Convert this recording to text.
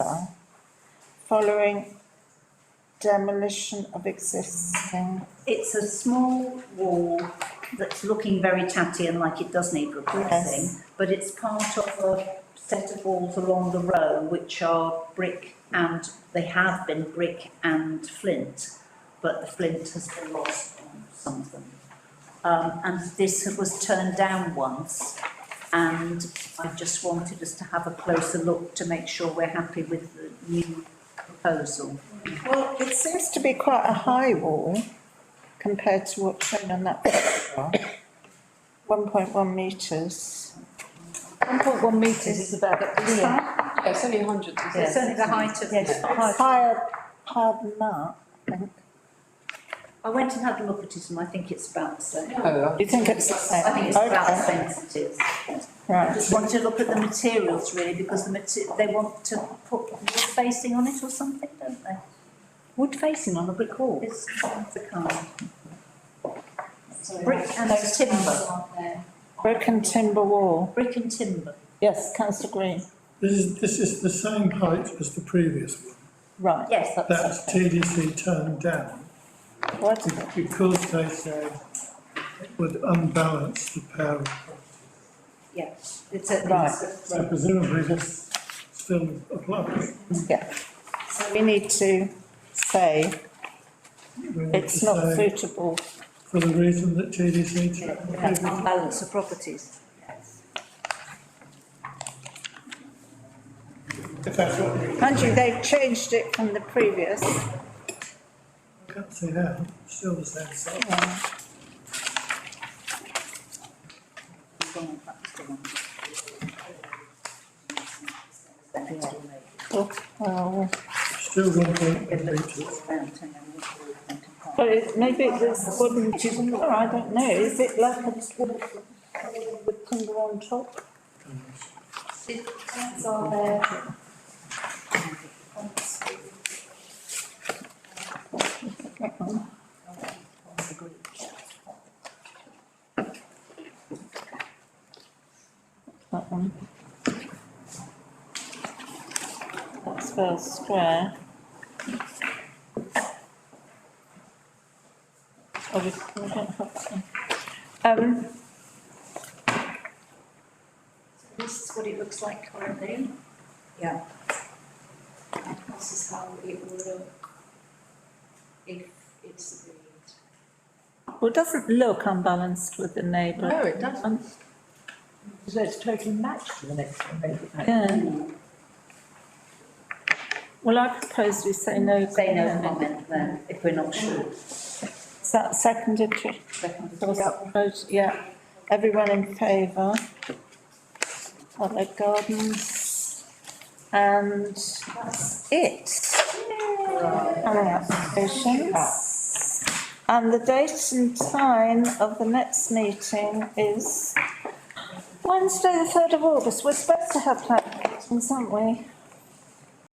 following demolition of existing. It's a small wall that's looking very tatty and like it does need Yes. replacing, but it's part of a set of walls along the row which are brick and, they have been brick and flint, but the flint has been lost on some of them. Um, and this was turned down once, and I just wanted us to have a closer look to make sure we're happy with the new proposal. Well, it seems to be quite a high wall compared to what's shown on that photograph. One point one metres. One point one metres is about the, yeah, Yeah, it's only hundreds, isn't Yeah. it? It's only the height of Yes. this. It's higher, higher than that. I went and had a look at it and I think it's about the same. No, You think it's the same? I think it's about the Okay, same as it is. I Right, just want to look at the materials really, because the mater, they want to put wood facing on it or something, don't they? Wood facing on a brick wall? It's one of the kind. Brick and timber, broken timber wall. brick and timber. Yes, councillor Green, This is, this is the same height as the previous one. right. Yes. That's TDC turned down What? because they said it would unbalance the pair. of- Yeah, it's a, Right. it's So a, presumably this still applies. Yeah. So we need to say We need it's to not say suitable. For the reason that TDC turned the yeah, previous one. balance of properties. If that's what we, Andrew, they've changed it from the previous. I can't see how, it's still the same size. Oh. Still one point one metres. But it, maybe it was wooden, or I don't know, is it like a wood, with timber on top? That one. That's well square. Oh, we, we don't have that one. Um, This is what it looks like currently. Yeah. This is how it will look if it's agreed. well, it doesn't look unbalanced with the neighbour. it doesn't. so it's totally matched to the next one, maybe. Um, Yeah. Well, I propose we say no. Say no comment. comment then, if we're not sure. Is that seconded? Trish? Vote- Yeah, everyone in favour? Other gardens? And that's it. Other applications. And the date and time of the next meeting is Wednesday, the third of August. We're supposed to have planning meetings, aren't we?